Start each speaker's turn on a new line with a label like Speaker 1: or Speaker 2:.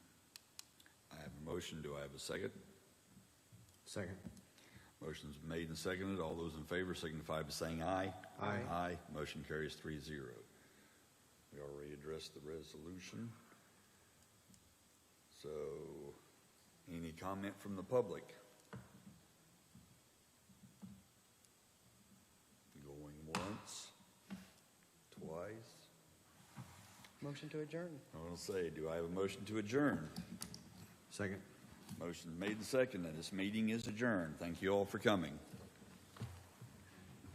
Speaker 1: motion. Do I have a second?
Speaker 2: Second.
Speaker 1: Motion's made and seconded. All those in favor signify by saying aye.
Speaker 2: Aye.
Speaker 1: Aye. Motion carries three zero. We already addressed the resolution. So, any comment from the public? Going once, twice.
Speaker 3: Motion to adjourn.
Speaker 1: I want to say, do I have a motion to adjourn?
Speaker 2: Second.
Speaker 1: Motion made and seconded. This meeting is adjourned. Thank you all for coming.